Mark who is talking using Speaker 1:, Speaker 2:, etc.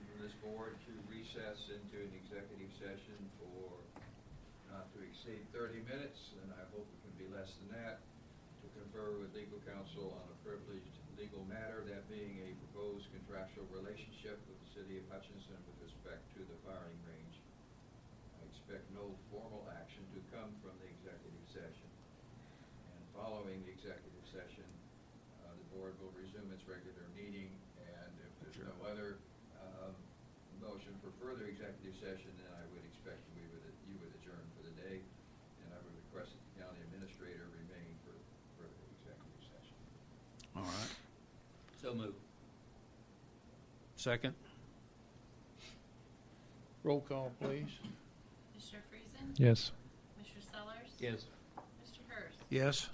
Speaker 1: board to recess into an executive session for not to exceed 30 minutes, and I hope it can be less than that, to confer with legal counsel on a privileged legal matter, that being a proposed contractual relationship with the city of Hutchinson with respect to the firing range. I expect no formal action to come from the executive session. And following the executive session, uh, the board will resume its regular meeting, and if there's no other um, motion for further executive session, then I would expect we would, you would adjourn for the day, and I would request that the county administrator remain for further executive session.
Speaker 2: All right.
Speaker 3: So moved.
Speaker 2: Second? Roll call, please.
Speaker 4: Mr. Friesen?
Speaker 5: Yes.
Speaker 4: Mr. Sellers?
Speaker 3: Yes.
Speaker 4: Mr. Hurst?
Speaker 2: Yes?